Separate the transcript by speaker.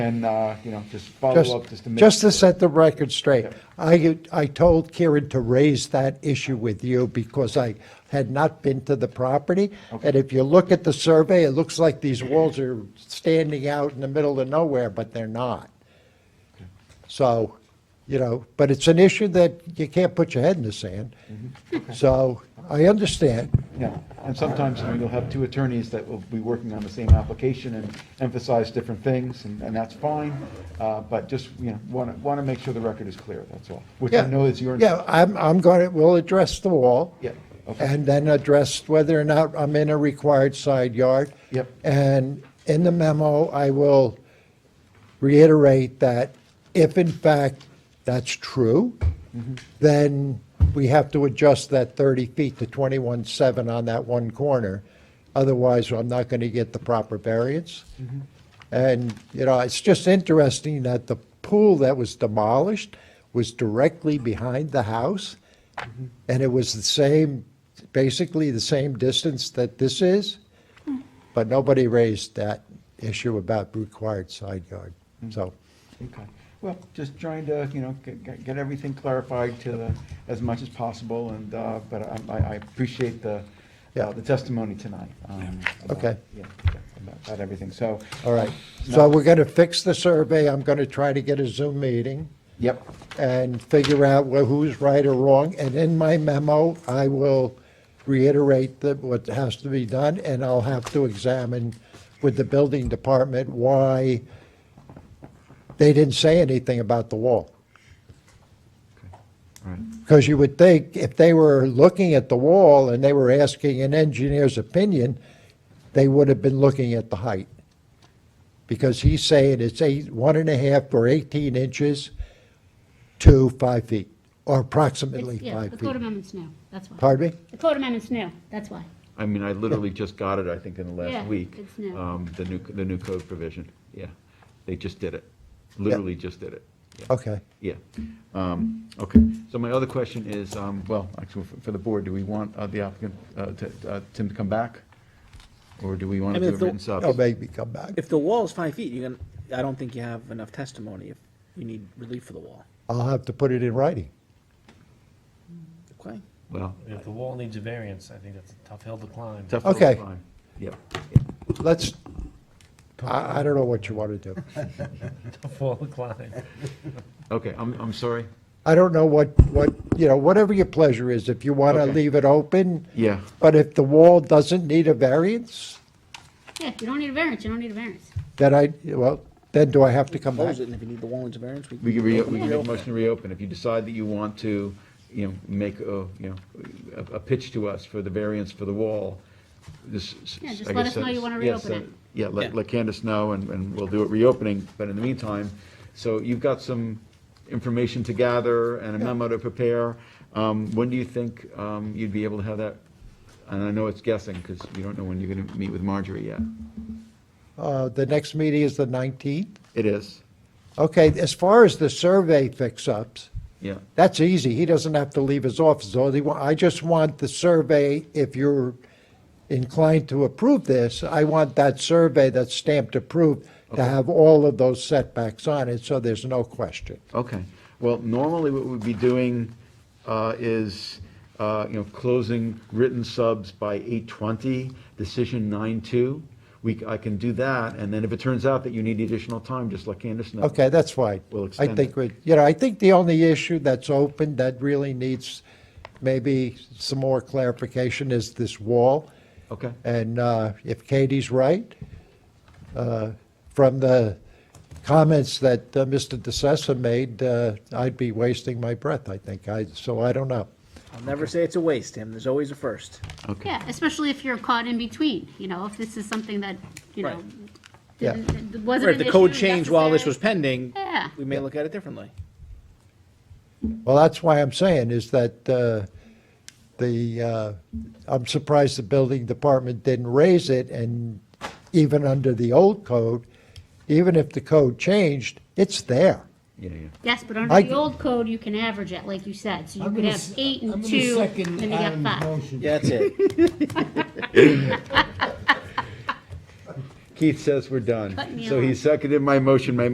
Speaker 1: And, uh, you know, just follow up just
Speaker 2: Just,
Speaker 1: to make.
Speaker 2: just to set the record straight, I, I told Kieran to raise that issue with you because I had not been to the property. And if you look at the survey, it looks like these walls are standing out in the middle of nowhere, but they're not. So, you know, but it's an issue that you can't put your head in the sand.
Speaker 1: Mm-hmm.
Speaker 2: So I understand.
Speaker 1: Yeah, and sometimes, you know, you'll have two attorneys that will be working on the same application and emphasize different things, and, and that's fine. Uh, but just, you know, want to, want to make sure the record is clear, that's all, which I
Speaker 2: Yeah.
Speaker 1: know is your.
Speaker 2: Yeah, I'm, I'm going to, we'll address the wall.
Speaker 1: Yeah, okay.
Speaker 2: And then address whether or not I'm in a required side yard.
Speaker 1: Yep.
Speaker 2: And in the memo, I will reiterate that if in fact that's true, then we have to adjust that 30 feet to 21.7 on that one corner. Otherwise, I'm not going to get the proper variance. And, you know, it's just interesting that the pool that was demolished was directly behind the house. And it was the same, basically the same distance that this is. But nobody raised that issue about required side yard. So,
Speaker 1: Okay, well, just trying to, you know, get- get, get everything clarified to the, as much as possible, and, uh, but I, I I appreciate the, uh,
Speaker 2: Yeah.
Speaker 1: the testimony tonight. um, about-
Speaker 2: Okay.
Speaker 1: Yeah, about- about everything, so.
Speaker 2: all right. So we're going to fix the survey. I'm going to try to get a Zoom meeting
Speaker 1: Yep,
Speaker 2: and figure out wh- who's right or wrong. And in my memo, I will reiterate that what has to be done, and I'll have to examine with the building department why they didn't say anything about the wall.
Speaker 1: all right.
Speaker 2: Because you would think if they were looking at the wall and they were asking an engineer's opinion, they would have been looking at the height. Because he's saying it's eight, one and a half or 18 inches to five feet, or approximately
Speaker 3: It's- Yeah,
Speaker 2: five
Speaker 3: the code
Speaker 2: feet.
Speaker 3: amendment's new, that's why.
Speaker 2: Pardon me?
Speaker 3: The code amendment's new, that's why.
Speaker 4: I mean, I literally just got it, I think, in the
Speaker 3: Yeah,
Speaker 4: last week.
Speaker 3: it's new.
Speaker 5: Uh.
Speaker 4: um, The new, the new code provision, yeah. They just did it, literally just did it. Yeah.
Speaker 2: Okay.
Speaker 4: Yeah, Um, okay. So my other question is, um, well, actually, for- for the board, do we want uh, the applicant, uh, to- uh, Tim to come back? Or do we want
Speaker 5: I
Speaker 4: to
Speaker 5: mean,
Speaker 4: do a
Speaker 5: if the-
Speaker 4: written sub?
Speaker 2: Oh, maybe come back.
Speaker 5: If the wall is five feet, you can, I don't think you have enough testimony if you need relief for the wall,
Speaker 2: I'll have to put it in writing.
Speaker 5: okay?
Speaker 4: Well,
Speaker 6: If the wall needs a variance, I think that's a tough hill to climb.
Speaker 4: tough little
Speaker 2: Okay.
Speaker 4: climb. Yeah,
Speaker 2: Let's, I, I don't know what you want to do.
Speaker 6: Tough hill to climb.
Speaker 4: okay, I'm, I'm sorry.
Speaker 2: I don't know what, what, you know, whatever your pleasure is, if you want to
Speaker 4: Okay.
Speaker 2: leave it open.
Speaker 4: Yeah.
Speaker 2: But if the wall doesn't need a variance,
Speaker 3: Yeah, if you don't need a variance, you don't need a variance.
Speaker 2: then I, well, then do I have to come back?
Speaker 5: Close it, and if you need the wall needs a variance, we can.
Speaker 4: We can re, we
Speaker 5: reopen
Speaker 4: can
Speaker 5: it.
Speaker 4: make a motion to reopen. If you decide that you want to, you know, make a, you know, a, a pitch to us for the variance for the wall, this.
Speaker 3: Yeah, just
Speaker 4: I
Speaker 3: let
Speaker 4: guess
Speaker 3: us know you
Speaker 4: that's-
Speaker 3: wanna
Speaker 4: yes,
Speaker 3: reopen
Speaker 4: uh,
Speaker 3: it.
Speaker 4: Yeah, let,
Speaker 5: Yeah.
Speaker 4: let Candace know and, and we'll do it reopening, but in the meantime, so you've got some information to gather and a memo to prepare. Um, when do you think, um, you'd be able to have that? And I know it's guessing, because you don't know when you're gonna meet with Marjorie yet.
Speaker 2: Uh, The next meeting is the 19th.
Speaker 4: It is,
Speaker 2: Okay, as far as the survey fix-ups,
Speaker 4: yeah,
Speaker 2: that's easy. He doesn't have to leave his office. All he wa- I just want the survey, if you're inclined to approve this, I want that survey that's stamped approved to have all of those setbacks on it, so there's no question.
Speaker 4: Okay, well, normally what we'd be doing uh, is, uh, you know, closing written subs by 8:20, decision 9:02. We, I can do that, and then if it turns out that you need additional time, just let Candace know.
Speaker 2: Okay, that's fine.
Speaker 4: We'll
Speaker 2: I
Speaker 4: extend
Speaker 2: think,
Speaker 4: it.
Speaker 2: we- you know, I think the only issue that's open that really needs maybe some more clarification is this wall.
Speaker 4: Okay,
Speaker 2: And uh, if Katie's right, uh, from the comments that uh, Mr. DeSesa made, uh, I'd be wasting my breath, I think. I, so I don't know.
Speaker 5: I'll never say it's a waste, Tim, there's always a first.
Speaker 4: okay.
Speaker 3: Yeah, especially if you're caught in between, you know, if this is something that, you know,
Speaker 5: Right.
Speaker 2: Yeah.
Speaker 3: didn't- it wasn't
Speaker 5: Or if
Speaker 3: an
Speaker 5: the code
Speaker 3: issue
Speaker 5: changed while this was
Speaker 3: necessary.
Speaker 5: pending,
Speaker 3: Yeah.
Speaker 5: we may look at it differently.
Speaker 2: Well, that's why I'm saying is that uh, the, uh, I'm surprised the building department didn't raise it. And even under the old code, even if the code changed, it's there.
Speaker 4: Yeah, yeah.
Speaker 3: Yes, but under
Speaker 2: I-
Speaker 3: the old code, you can average it, like you said, so you
Speaker 7: I'm
Speaker 3: could
Speaker 7: gonna
Speaker 3: have
Speaker 7: s-
Speaker 3: eight
Speaker 7: I'm
Speaker 3: and
Speaker 7: gonna
Speaker 3: two,
Speaker 7: second
Speaker 3: and you got
Speaker 7: Adam's
Speaker 3: five.
Speaker 7: motion.
Speaker 5: Yeah, that's it.
Speaker 4: Keith says we're done.
Speaker 3: Cut me
Speaker 4: So he
Speaker 3: off.
Speaker 4: seconded my motion. My